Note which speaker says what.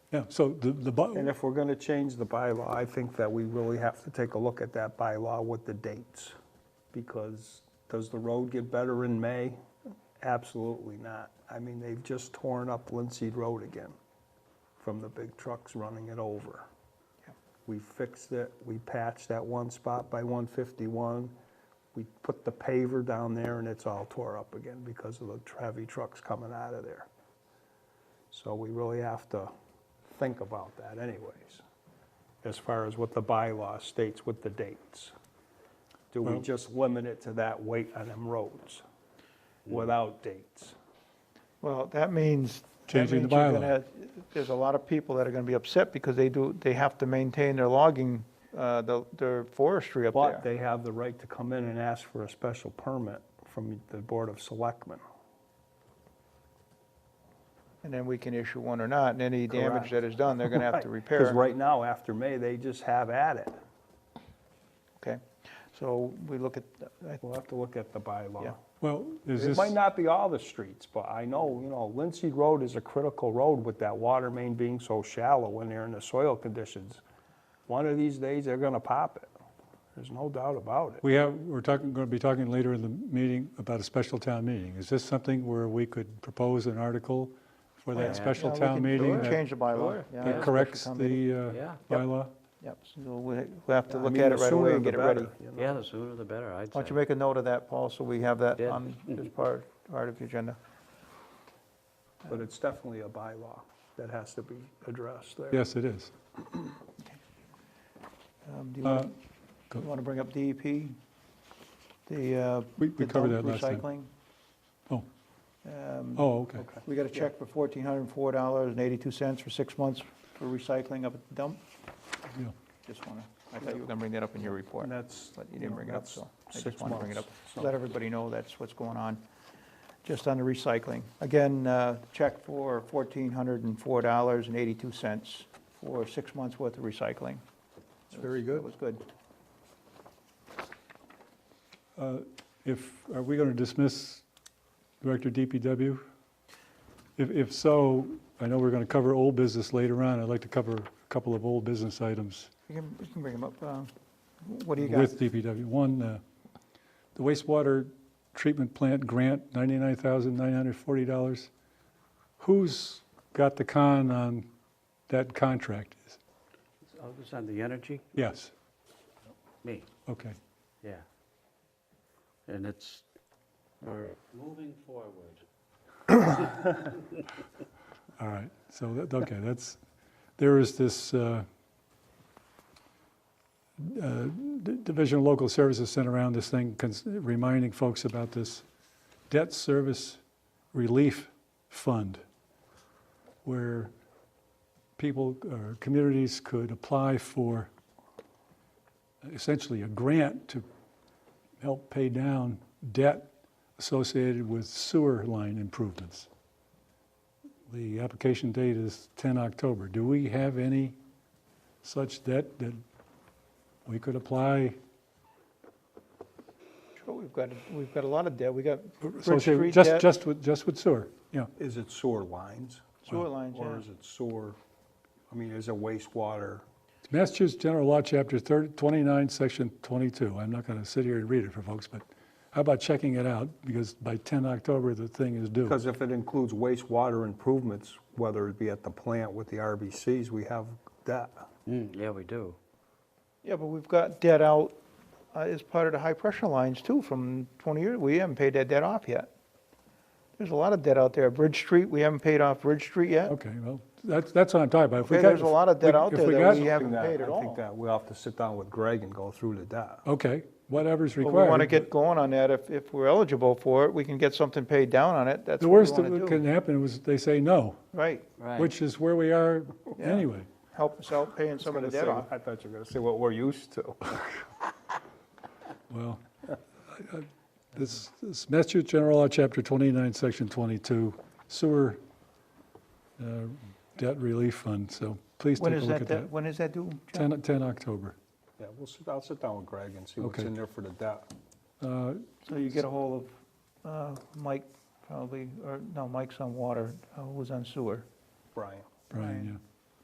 Speaker 1: Yeah, so the, the,
Speaker 2: And
Speaker 1: bu-
Speaker 2: if we're gonna change the bylaw, I think that we really have to take a look at that bylaw with the dates. Because does the road get better in May? Absolutely not. I mean, they've just torn up Linseed Road again from the big trucks running it over. We fixed it, we patched that one spot by 151. We put the paver down there and it's all tore up again because of the heavy trucks coming out of there. So we really have to think about that anyways, as far as what the bylaw states with the dates. Do we
Speaker 1: Well-
Speaker 2: just limit it to that weight on them roads without dates?
Speaker 3: Well, that means. that
Speaker 1: Changing the
Speaker 3: means you're
Speaker 1: bylaw.
Speaker 3: gonna- There's a lot of people that are gonna be upset because they do, they have to maintain their logging, uh, the- their forestry up
Speaker 2: But
Speaker 3: there.
Speaker 2: they have the right to come in and ask for a special permit from the Board of Selectmen.
Speaker 3: And then we can issue one or not, and any damage
Speaker 2: Correct.
Speaker 3: that is done, they're gonna have to
Speaker 2: Because
Speaker 3: repair.
Speaker 2: right now, after May, they just have at it.
Speaker 3: Okay, so we look at, I-
Speaker 2: We'll have to look at the bylaw.
Speaker 3: Yeah.
Speaker 1: well, is
Speaker 2: It
Speaker 1: this,
Speaker 2: might not be all the streets, but I know, you know, Linseed Road is a critical road with that water main being so shallow when they're in the soil conditions. One of these days, they're gonna pop it. There's no doubt about it.
Speaker 1: we have, we're talking, going to be talking later in the meeting about a special town meeting. Is this something where we could propose an article for that
Speaker 3: Yeah,
Speaker 1: special
Speaker 3: we
Speaker 1: town
Speaker 3: can- we
Speaker 1: meeting
Speaker 3: can
Speaker 1: that-
Speaker 3: Change the bylaw.
Speaker 4: Sure.
Speaker 3: yeah,
Speaker 1: that
Speaker 3: yeah.
Speaker 1: corrects
Speaker 3: Special town meeting.
Speaker 1: the uh,
Speaker 4: Yeah.
Speaker 1: bylaw?
Speaker 3: Yep, so we'll we'll have to
Speaker 2: I
Speaker 3: look
Speaker 2: mean,
Speaker 3: at
Speaker 2: the
Speaker 3: it right
Speaker 2: sooner
Speaker 3: away and
Speaker 2: the
Speaker 3: get it ready.
Speaker 2: better, you know.
Speaker 4: Yeah, the sooner the better, I'd say.
Speaker 3: Why don't you make a note of that, Paul, so we have that
Speaker 4: Yeah.
Speaker 3: on, as part, part of the agenda.
Speaker 2: But it's definitely a bylaw that has to be addressed there.
Speaker 1: Yes, it is.
Speaker 3: Um, Do you
Speaker 1: Uh,
Speaker 3: want,
Speaker 1: go-
Speaker 3: you want to bring up DEP? The, uh.
Speaker 1: We- we
Speaker 3: the
Speaker 1: covered
Speaker 3: dump
Speaker 1: that last time. Oh,
Speaker 3: recycling. Um,
Speaker 1: oh, okay.
Speaker 2: Okay.
Speaker 3: We got a check for fourteen hundred and four dollars and eighty-two cents for six months for recycling up at the dump.
Speaker 1: yeah.
Speaker 3: Just want to, I thought you were going to bring that up in your report,
Speaker 2: And that's.
Speaker 3: but you didn't bring it up,
Speaker 2: that's
Speaker 3: so I
Speaker 2: six
Speaker 3: just want to bring it up.
Speaker 2: months, so-
Speaker 3: Let everybody know that's what's going on, just on the recycling. Again, uh, check for fourteen hundred and four dollars and eighty-two cents for six months worth of recycling. It's very good. It was good.
Speaker 1: Uh, If, are we going to dismiss Director DPW? If, if so, I know we're going to cover old business later on. I'd like to cover a couple of old business items
Speaker 3: You can, you can bring them up. uh, What do you got?
Speaker 1: with DPW. One, uh, the wastewater treatment plant grant, $99,940. Who's got the con on that contract?
Speaker 4: I was Oh, on the energy,
Speaker 1: Yes,
Speaker 4: me,
Speaker 1: okay.
Speaker 4: yeah. And it's, we're moving forward.
Speaker 1: All right, so, that- okay, that's, there is this uh, uh, D- Division of Local Services sent around this thing cons- reminding folks about this debt service relief fund where people or communities could apply for essentially a grant to help pay down debt associated with sewer line improvements. The application date is 10 October. Do we have any such debt that we could apply?
Speaker 3: Sure, we've got, we've got a lot of debt, we got Bridge
Speaker 1: associated-
Speaker 3: Street
Speaker 1: Just,
Speaker 3: debt,
Speaker 1: just with, just with sewer, yeah.
Speaker 2: Is it sewer lines?
Speaker 3: sewer lines,
Speaker 2: Or
Speaker 3: yeah.
Speaker 2: is it sewer, I mean, is it wastewater?
Speaker 1: Massachusetts General Law, Chapter 30 29, Section 22. I'm not going to sit here and read it for folks, but how about checking it out? Because by 10 October, the thing is due.
Speaker 2: Because if it includes wastewater improvements, whether it be at the plant with the RBCs, we have that.
Speaker 4: Mm, Yeah, we do.
Speaker 3: Yeah, but we've got debt out uh, as part of the high-pressure lines too from 20 years, we haven't paid that debt off yet. There's a lot of debt out there, Bridge Street, we haven't paid off Bridge Street yet.
Speaker 1: Okay, well, that's, that's what I'm talking about. If we
Speaker 3: Okay,
Speaker 1: got-
Speaker 3: there's a lot of
Speaker 1: if
Speaker 3: debt
Speaker 1: we-
Speaker 3: out
Speaker 1: if
Speaker 3: there
Speaker 1: we
Speaker 3: that
Speaker 1: got-
Speaker 3: we haven't
Speaker 2: That-
Speaker 3: paid at
Speaker 2: I think
Speaker 3: all.
Speaker 2: that we'll have to sit down with Greg and go through the debt.
Speaker 1: Okay, whatever's
Speaker 3: But we
Speaker 1: required.
Speaker 3: want to get going on that, if, if we're eligible for it, we can get something paid down on it, that's
Speaker 1: The
Speaker 3: what we
Speaker 1: worst
Speaker 3: want
Speaker 1: that
Speaker 3: to
Speaker 1: can
Speaker 3: do.
Speaker 1: happen was they say no,
Speaker 3: Right,
Speaker 4: Right.
Speaker 1: which is where we are
Speaker 3: Yeah.
Speaker 1: anyway.
Speaker 3: help us out paying some of the debt off.
Speaker 2: I thought you were gonna say what we're used to.
Speaker 1: Well, I- I- this, this Massachusetts General Law, Chapter 29, Section 22, sewer uh, debt relief fund, so please
Speaker 3: When
Speaker 1: take a
Speaker 3: is
Speaker 1: look
Speaker 3: that,
Speaker 1: at
Speaker 3: debt-
Speaker 1: that.
Speaker 3: when is that due? John?
Speaker 1: 10, 10 October.
Speaker 2: Yeah, we'll sit, I'll sit down with Greg and see what's
Speaker 1: Okay.
Speaker 2: in there for the debt.
Speaker 1: Uh,
Speaker 3: So you get a hold of uh, Mike, probably, or, no, Mike's on water, uh, who's on sewer.
Speaker 2: Brian,
Speaker 1: Brian,